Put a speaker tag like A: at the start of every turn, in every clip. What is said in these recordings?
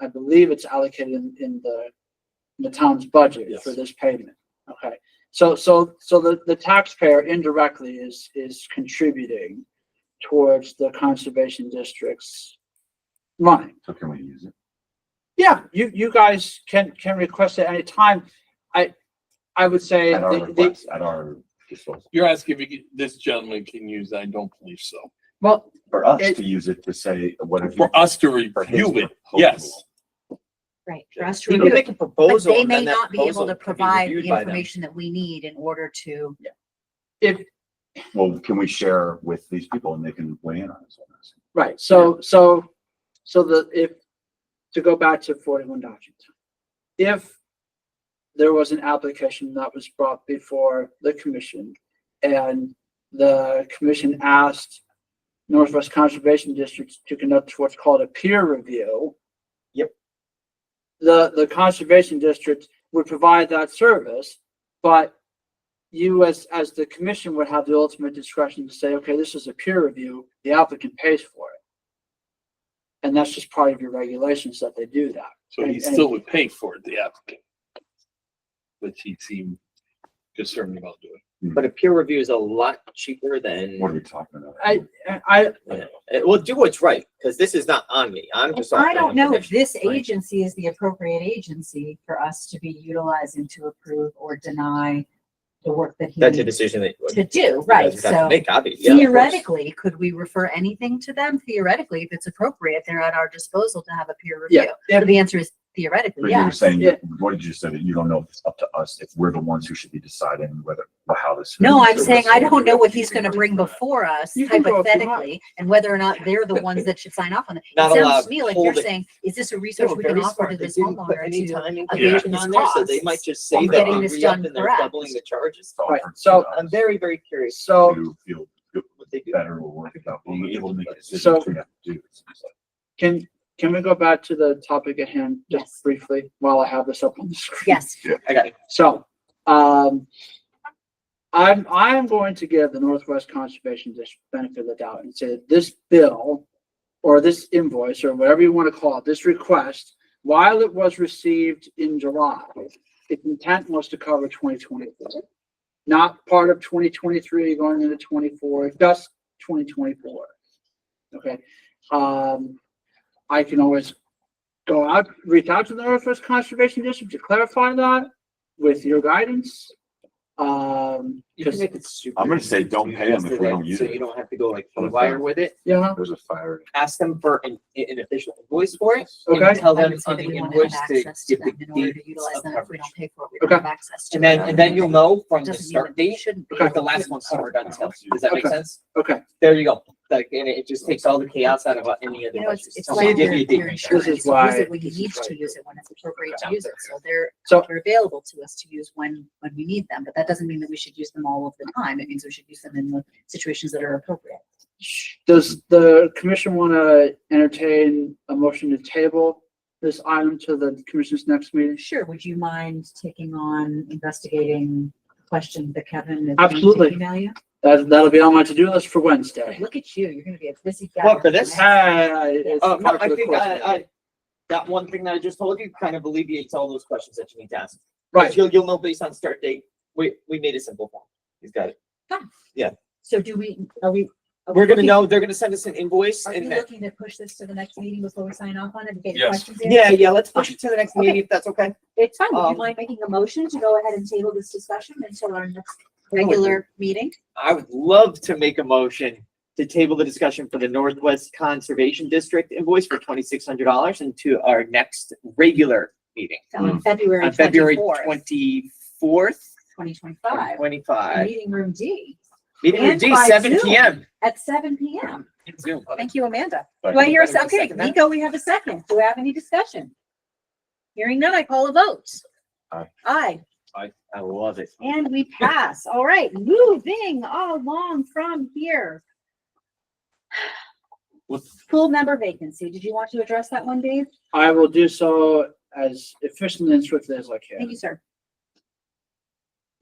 A: I believe it's allocated in, in the, in the town's budget
B: Yes.
A: for this payment. Okay, so, so, so the, the taxpayer indirectly is, is contributing towards the conservation district's money.
C: So can we use it?
A: Yeah, you, you guys can, can request at any time. I, I would say,
C: At our
A: the- the-
C: request, at our disposal,
B: You're asking if you could- this gentleman can use, it. I don't believe so.
A: well,
C: for us
A: It-
C: to use it to say, what if you?
B: For us to
C: for his
B: review it,
C: proposal.
B: yes.
D: Right, for us to
E: We can
D: review,
E: make a
D: but
E: proposal.
D: they
E: and
D: may
E: then that
D: not be able
E: proposal
D: to
E: can be
D: provide
E: reviewed
D: the
E: by them.
D: information that we need in order to,
A: if,
C: Well, can we share with these people and they can weigh in on us on this?
A: Right, so, so, so the, if, to go back to forty-one Dodgington. If there was an application that was brought before the commission and the commission asked Northwest Conservation District to conduct what's called a peer review.
E: Yep.
A: The, the conservation district would provide that service, but you as, as the commission would have the ultimate discretion to say, okay, this is a peer review, the applicant pays for it. And that's just part of your regulations that they do that.
B: So he
A: And- and-
B: still would pay for it, the applicant. Which he seemed concerned about doing.
E: But a peer review is a lot cheaper than,
C: What are we talking about?
A: I, I,
E: Uh, well, do what's right, because this is not on me. I'm just.
D: I don't know if
E: offering
D: this
E: right?
D: agency is the appropriate agency for us to be utilizing to approve or deny the work that he
E: information. That's a
D: needs
E: decision that.
D: to do,
E: you guys
D: right?
E: would have to
D: So
E: Make, obviously. yeah, of course.
D: theoretically, could we refer anything to them? Theoretically, if it's appropriate, they're at our disposal to have a peer
A: yeah,
D: review. So
A: if-
D: the answer is theoretically,
C: But you were
D: yes.
C: saying,
A: Yeah.
C: what did you say, that you don't know if it's up to us, if we're the ones who should be deciding whether, or how this.
D: No, I'm
C: or
D: saying I
C: what's-
D: don't know what he's gonna bring before us
A: You can go if you want.
D: hypothetically and whether or not they're the ones that should sign off on it. It
E: Not
D: sounds
E: allowed
D: to me like you're
E: holding.
D: saying, is this a
E: They
D: research
E: were
D: we can
E: very
D: offer to
E: smart. They
D: this
E: didn't put
D: homeowner
E: any
D: to?
E: time
D: abate
E: inclusion
D: his
E: on there, so they
D: costs
E: might just
D: on
E: say that
D: getting
E: they
D: this
E: re-upped
D: done
E: and they're
D: correct.
E: doubling the charges.
C: It's all
A: Right,
C: for us
A: so-
E: I'm very, very curious
A: so
C: To feel
E: what they do.
C: better or work out, being able to make
A: So-
C: decisions we have to do.
A: can, can we go back to the topic at hand
D: Yes.
A: just briefly while I have this up on the screen?
D: Yes,
E: I got it.
A: So, um, I'm, I'm going to give the Northwest Conservation District benefit of the doubt and say that this bill or this invoice or whatever you want to call it, this request, while it was received in July, its intent was to cover twenty twenty-four. Not part of twenty twenty-three going into twenty-four, just twenty twenty-four. Okay, um, I can always go out, reach out to the Northwest Conservation District to clarify that with your guidance. Um,
E: You can
A: because,
E: make it super.
C: I'm gonna say don't pay 'em if we don't use
E: So
C: it.
E: you don't have to go like wire with it.
A: yeah,
C: There's a fire.
E: Ask them for an, an official invoice for it. and
A: okay,
E: Tell
D: I
E: them
D: would say
E: on
D: that
E: the
D: we want to
E: invoice
D: have
E: to
D: access to
E: give the
D: them in order
E: deeds
D: to utilize
E: of
D: them. If we
E: coverage.
D: don't pay for it, we don't
A: Okay.
D: have access to it.
E: And then, and then you'll know from the
D: Doesn't mean that
E: start
D: they
E: date,
D: shouldn't be
E: what the
D: able
E: last
D: to.
E: one's covered until, does that make
A: Okay.
E: sense?
A: okay.
E: There you go, like, and it just takes all the chaos out of uh, any of the
D: You know, it's,
E: budgets.
D: it's
E: Someone
D: like
E: give
D: your,
E: me a
D: your
E: date.
D: insurance,
A: is
D: you use
A: why-
D: it when you
A: this is
D: need to
A: why-
D: use it, when it's appropriate to
E: Yeah.
D: use it, so they're,
A: So-
D: they're available to us to use when, when we need them, but that doesn't mean that we should use them all of the time, it means we should use them in the situations that are appropriate.
A: Does the commission want to entertain a motion to table this item to the commission's next meeting?
D: Sure, would you mind taking on investigating questions that Kevin is
A: Absolutely.
D: going to email you?
A: That, that'll be on my to-do list for Wednesday.
D: Look at you, you're gonna be a busy guy.
E: Well, for this-
D: next-
A: Hey, it's
E: Uh, no,
A: part
E: I
A: of the
E: think
A: course.
E: I, I, that one thing that I just told you kind of alleviates all those questions that you need to ask. 'Cause
A: Right,
E: You'll, you'll know based on start date, we, we made a simple form, he's got it.
D: So do we, are we? are we
E: We're gonna
D: looking-
E: know, they're gonna send us an invoice
D: Are you
E: and then,
D: looking to push this to the next meeting before we sign off on it and get your
B: Yes.
D: questions in?
E: yeah, yeah, let's push it to the next
D: Okay.
E: meeting if that's okay.
D: It's fine. Would you
E: Um,
D: mind making a motion to go ahead and table this discussion until our next regular meeting?
E: I would love to make a motion to table the discussion for the Northwest Conservation District invoice for twenty-six hundred dollars into our next regular meeting
D: On February
E: Hmm. on February
D: twenty-fourth,
E: twenty-fourth,
D: twenty twenty-five,
E: twenty-five.
D: meeting room D
E: Meeting
D: And
E: with D,
D: by
E: seven
D: Zoom.
E: P M.
D: at seven P M.
E: Zoom.
D: Thank you, Amanda.
C: But-
D: Do I hear, a
E: Anybody
D: se-
E: with a
D: okay,
E: second there?
D: Nico, we have a second. Do we have any discussion? Hearing none, I call a vote.
C: Aye.
D: Aye,
E: I, I love it.
D: and we pass. All right, moving along from here. Full member vacancy. Did you want to address that one, Dave?
A: I will do so as efficiently and swiftly as I
D: Thank
A: can.
D: you, sir.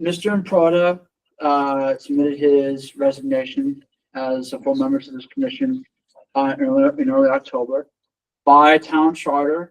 A: Mr. Imprada, uh, submitted his resignation as a full member to this commission, uh, in early, in early October. By town charter,